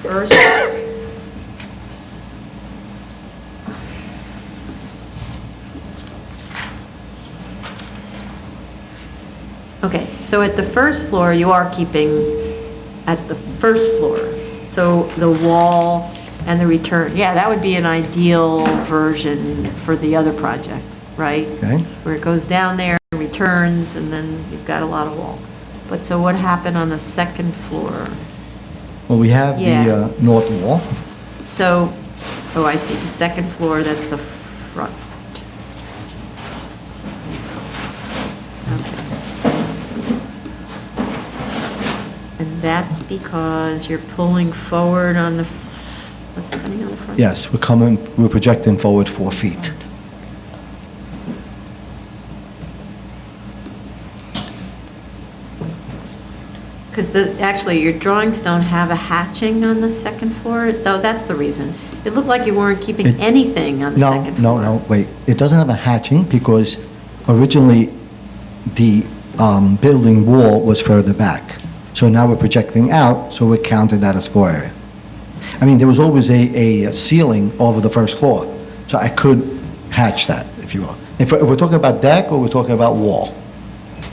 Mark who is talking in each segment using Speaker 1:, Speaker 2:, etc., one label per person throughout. Speaker 1: First. Okay, so at the first floor, you are keeping at the first floor. So the wall and the return, yeah, that would be an ideal version for the other project, right?
Speaker 2: Okay.
Speaker 1: Where it goes down there, and returns, and then you've got a lot of wall. But so what happened on the second floor?
Speaker 2: Well, we have the
Speaker 1: Yeah.
Speaker 2: uh, north wall,
Speaker 1: So, oh, I see, the second floor, that's the front. Okay. And that's because you're pulling forward on the, what's happening on the front?
Speaker 2: yes, we're coming, we're projecting forward four feet.
Speaker 1: Because the, actually, your drawings don't have a hatching on the second floor, though that's the reason. It looked like you weren't keeping
Speaker 2: It-
Speaker 1: anything on the
Speaker 2: No,
Speaker 1: second
Speaker 2: no,
Speaker 1: floor.
Speaker 2: no, wait, it doesn't have a hatching because originally the um, building wall was further back. So now we're projecting out, so we're counting that as floor area. I mean, there was always a, a ceiling over the first floor, so I could hatch that, if you will. If we're if we're talking about deck or we're talking about wall?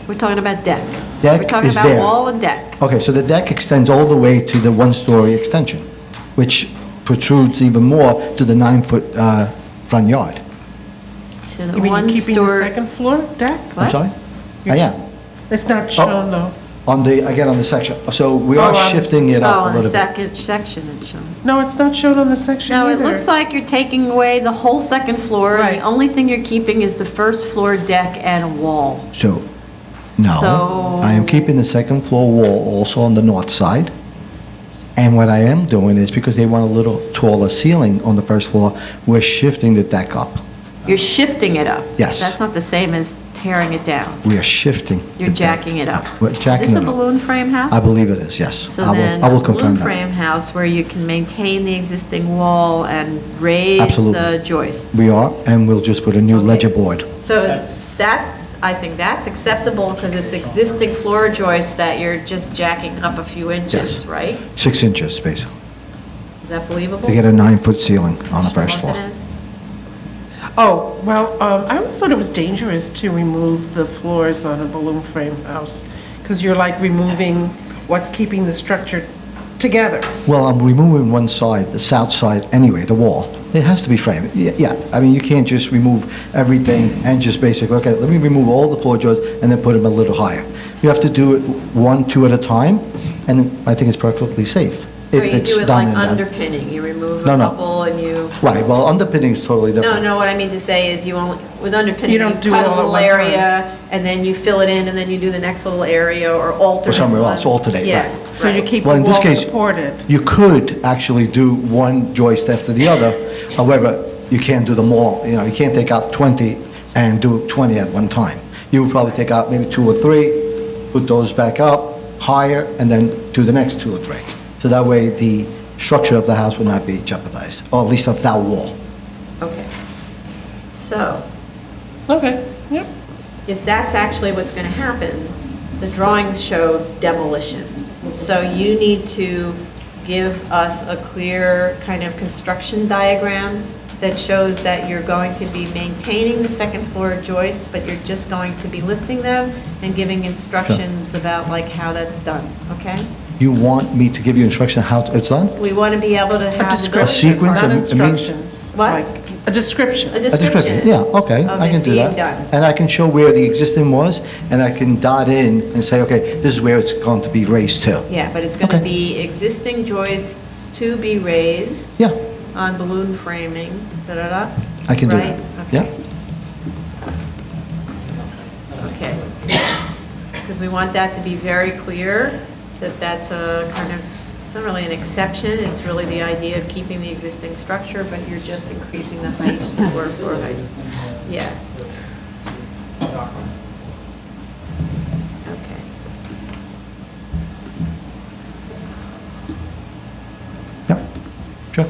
Speaker 1: We're talking about deck.
Speaker 2: Deck
Speaker 1: We're talking
Speaker 2: is there.
Speaker 1: about wall and deck.
Speaker 2: Okay, so the deck extends all the way to the one-story extension, which protrudes even more to the nine-foot uh, front yard.
Speaker 1: To the
Speaker 3: You mean
Speaker 1: one
Speaker 3: you're keeping the
Speaker 1: story.
Speaker 3: second floor deck?
Speaker 2: I'm
Speaker 1: What?
Speaker 2: sorry? I am,
Speaker 3: It's not shown though.
Speaker 2: on the, again, on the section. So we
Speaker 3: Oh,
Speaker 2: are
Speaker 3: on the-
Speaker 2: shifting it
Speaker 1: Oh,
Speaker 2: up
Speaker 1: on
Speaker 2: a
Speaker 1: the
Speaker 2: little bit.
Speaker 1: second section it's shown.
Speaker 3: No, it's not shown on the section
Speaker 1: No,
Speaker 3: either.
Speaker 1: it looks like you're taking away the whole second floor. and The
Speaker 3: Right.
Speaker 1: only thing you're keeping is the first floor deck and a wall.
Speaker 2: So, no,
Speaker 1: So-
Speaker 2: I am keeping the second floor wall also on the north side. And what I am doing is, because they want a little taller ceiling on the first floor, we're shifting the deck up.
Speaker 1: You're shifting it up.
Speaker 2: Yes.
Speaker 1: That's not the same as tearing it down.
Speaker 2: We are shifting. the
Speaker 1: You're
Speaker 2: deck
Speaker 1: jacking it up.
Speaker 2: We're jacking
Speaker 1: Is
Speaker 2: it
Speaker 1: this
Speaker 2: up.
Speaker 1: a balloon frame house?
Speaker 2: I believe it is, yes.
Speaker 1: So
Speaker 2: I will-
Speaker 1: then,
Speaker 2: I will
Speaker 1: a balloon
Speaker 2: confirm that.
Speaker 1: frame house where you can maintain the existing wall and raise
Speaker 2: Absolutely.
Speaker 1: the joists.
Speaker 2: We are, and we'll just put a new
Speaker 1: Okay.
Speaker 2: ledger board.
Speaker 1: So that's, I think that's acceptable because it's existing floor joists that you're just jacking up a few inches,
Speaker 2: Yes.
Speaker 1: right?
Speaker 2: Six inches, basically.
Speaker 1: Is that believable?
Speaker 2: To get a nine-foot ceiling on the first floor.
Speaker 1: What it is?
Speaker 3: Oh, well, um, I always thought it was dangerous to remove the floors on a balloon frame house because you're like removing what's keeping the structure together.
Speaker 2: Well, I'm removing one side, the south side, anyway, the wall. It has to be framed. Yeah, yeah. I mean, you can't just remove everything and just basically, okay, let me remove all the floor joists and then put them a little higher. You have to do it one, two at a time, and I think it's perfectly safe. if
Speaker 1: Or you
Speaker 2: it's
Speaker 1: do it
Speaker 2: done
Speaker 1: like
Speaker 2: in that-
Speaker 1: underpinning, you remove a
Speaker 2: No, no.
Speaker 1: couple and you,
Speaker 2: Right, well, underpinning is totally
Speaker 1: no,
Speaker 2: different.
Speaker 1: no, what I mean to say is you only, with underpinning, you
Speaker 3: You don't
Speaker 1: cut
Speaker 3: do it all
Speaker 1: a
Speaker 3: at
Speaker 1: little
Speaker 3: one time.
Speaker 1: area and then you fill it in and then you do the next little area or alternate.
Speaker 2: somewhere else,
Speaker 1: ones.
Speaker 2: alternate,
Speaker 1: Yeah,
Speaker 2: right.
Speaker 3: So you
Speaker 1: right.
Speaker 3: keep
Speaker 2: Well,
Speaker 3: the
Speaker 2: in this
Speaker 3: wall
Speaker 2: case-
Speaker 3: supported.
Speaker 2: You could actually do one joist after the other, however, you can't do them all, you know, you can't take out 20 and do 20 at one time. You would probably take out maybe two or three, put those back up higher, and then do the next two or three. So that way, the structure of the house would not be jeopardized, or at least of that wall.
Speaker 1: Okay. So.
Speaker 3: Okay, yep.
Speaker 1: if that's actually what's going to happen, the drawings show demolition. So you need to give us a clear kind of construction diagram that shows that you're going to be maintaining the second floor joists, but you're just going to be lifting them and giving instructions about like how that's done, okay?
Speaker 2: You want me to give you instruction how to- it's done?
Speaker 1: We want to be able to
Speaker 3: A
Speaker 1: have. the building
Speaker 3: description,
Speaker 2: sequence
Speaker 3: not
Speaker 2: of-
Speaker 1: department-
Speaker 2: it means-
Speaker 3: instructions.
Speaker 1: What?
Speaker 3: like A description.
Speaker 1: A
Speaker 2: A description,
Speaker 1: description.
Speaker 2: yeah, okay,
Speaker 1: of
Speaker 2: I
Speaker 1: it
Speaker 2: can do
Speaker 1: being
Speaker 2: that.
Speaker 1: done.
Speaker 2: And I can show where the existing was, and I can dot in and say, okay, this is where it's going to be raised to.
Speaker 1: Yeah, but it's going to
Speaker 2: Okay.
Speaker 1: be existing joists to be raised.
Speaker 2: Yeah,
Speaker 1: on balloon framing, da-da-da?
Speaker 2: I can do
Speaker 1: Right?
Speaker 2: that.
Speaker 1: Okay.
Speaker 2: Yeah.
Speaker 1: Okay. Because we want that to be very clear, that that's a kind of, it's not really an exception, it's really the idea of keeping the existing structure, but you're just increasing the height, the floor, floor height. Yeah. Okay.
Speaker 2: yeah, sure.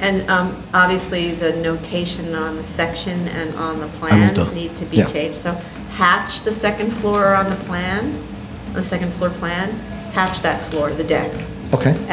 Speaker 1: And um, obviously, the notation on the section and on the
Speaker 2: will do.
Speaker 1: plans need to be
Speaker 2: Yeah.
Speaker 1: changed. So hatch the second floor on the plan, the second floor plan, hatch that floor, the deck.
Speaker 2: Okay.